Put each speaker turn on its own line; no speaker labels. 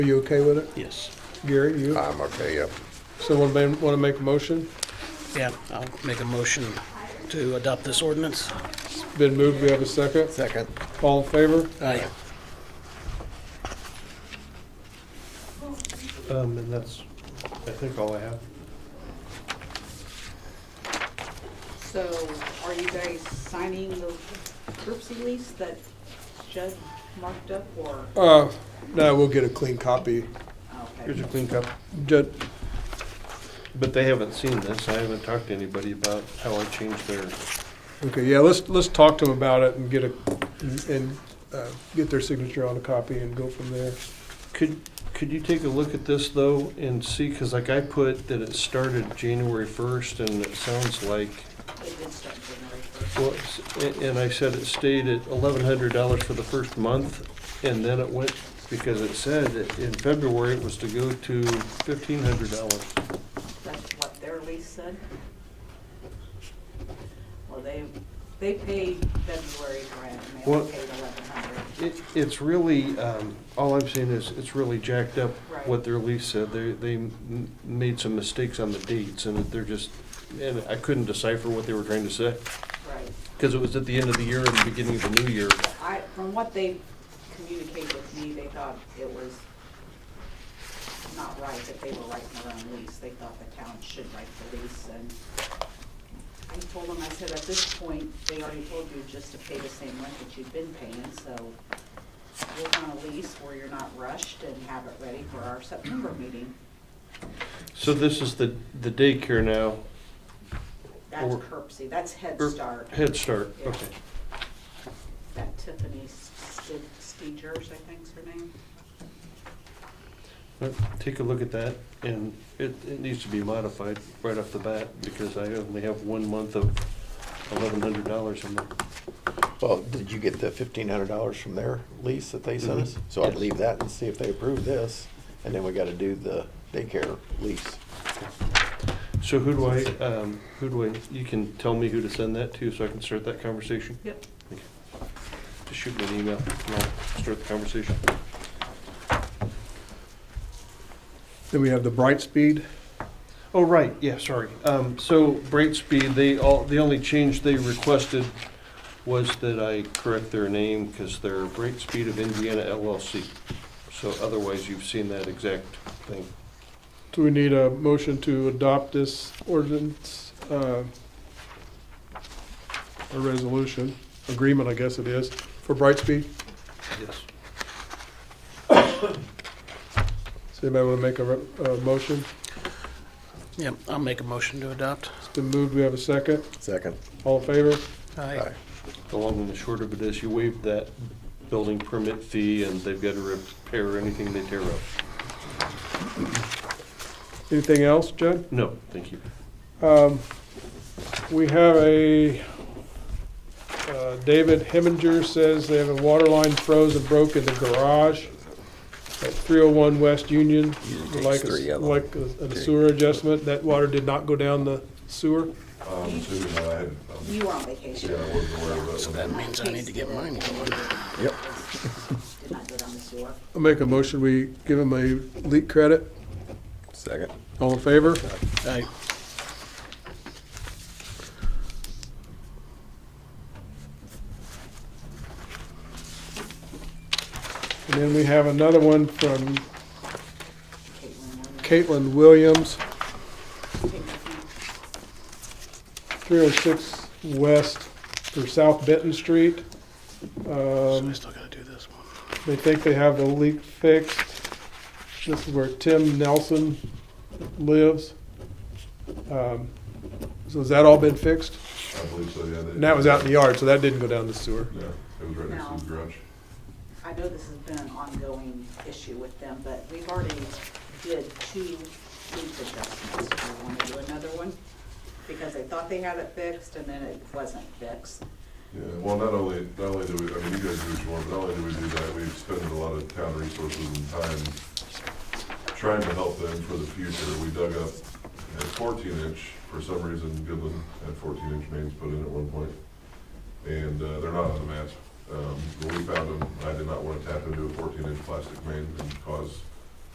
Are you okay with it?
Yes.
Gary, you,
Uh,
I'm okay, yeah.
someone want to make a motion?
Yeah, I'll make a motion to adopt this ordinance.
Been moved, we have a second.
Second.
All in favor?
Aye.
Um, and that's, I think, all I have.
So are you guys signing the curbsy lease that Judd marked up or? oh,
Uh, no, we'll get a clean copy.
Here's your clean cup.
Ju-
But they haven't seen this. I haven't talked to anybody about how I changed their,
Okay, yeah, let's, let's talk to them about it and get a, and, uh, get their signature on a copy and go from there.
could, could you take a look at this though and see, cause like I put that it started January first and it sounds like,
It did start January first.
well, it's- a- and I said it stayed at eleven hundred dollars for the first month and then it went, because it said that in February it was to go to fifteen hundred dollars.
That's what their lease said? Well, they, they paid February rent and they only
What?
paid eleven hundred.
It, it's really, um, all I'm saying is, it's really jacked up
Right.
what their lease said. They, they m- made some mistakes on the dates and they're just, and I couldn't decipher what they were trying to say.
Right.
Cause it was at the end of the year and the beginning of the new year.
I, from what they communicated with me, they thought it was not right that they were writing their own lease. They thought the town should write the lease and I told them, I said, at this point, they already told you just to pay the same rent that you've been paying, so we're on a lease where you're not rushed and have it ready for our September meeting.
So this is the, the daycare now,
That's
Or-
curbsy, that's Head
or
Start,
Head Start,
Yeah.
okay.
that Tiffany Ste- Stegers, I think's her name.
Uh, Take a look at that and it, it needs to be modified right off the bat because I only have one month of eleven hundred dollars in there.
Well, did you get the fifteen hundred dollars from their lease that they sent us?
Mhm.
So I'd
Yes.
leave that and see if they approve this, and then we gotta do the daycare lease.
So who do I, um, who do I, you can tell me who to send that to so I can start that conversation?
Yep.
Okay. Just shoot me an email and I'll start the conversation.
Then we have the Brightspeed.
Oh, right, yeah, sorry. Um, so Brightspeed, they all, the only change they requested was that I correct their name because they're Brightspeed of Indiana LLC. So otherwise, you've seen that exact thing.
Do we need a motion to adopt this ordinance, uh, a resolution, agreement, I guess it is, for Brightspeed?
Yes.
Does anybody want to make a, re- a motion?
Yep, I'll make a motion to adopt.
It's been moved, we have a second.
Second.
All in favor?
Aye.
Aye.
The long and the short of it is you waive that building permit fee and they've got to repair anything they tear up.
Anything else, Judd?
No, thank you.
Um, We have a, uh, David Heminger says they have a water line froze and broke in the garage at 301 West Union. Would Like,
three
a-
yellow.
like a a sewer adjustment, that water did not go down the sewer.
Um, Susan, I had, um,
You were on vacation.
yeah, I wasn't aware of that. one.
That means I need to get mine going.
Yep.
Did not go down the sewer.
I'll make a motion, we give him a leak credit.
Second.
All in favor?
Aye.
And then we have another one from
Caitlin,
Caitlin Williams,
when you came back,
306 West, or South Benton Street.
So
Um,
I still gotta do this one.
They think they have the leak fixed. This is where Tim Nelson lives. Um, So has that all been fixed?
I believe so, yeah. they-
And that was out in the yard, so that didn't go down the sewer.
Yeah, it was right next to the garage.
I know this has been an ongoing issue with them, but we've already did two lease adjustments. Do you want to do another one? Because they thought they had it fixed and then it wasn't fixed.
Yeah, well, not only, not only do we, I mean, you guys do what you want, but not only do we do that, we've spent a lot of town resources and time trying to help them for the future. We dug up a fourteen inch, for some reason, Goodland had fourteen inch mains put in at one point. And, uh, they're not on the map. Um, when we found them, I did not want to tap into a fourteen inch plastic main and cause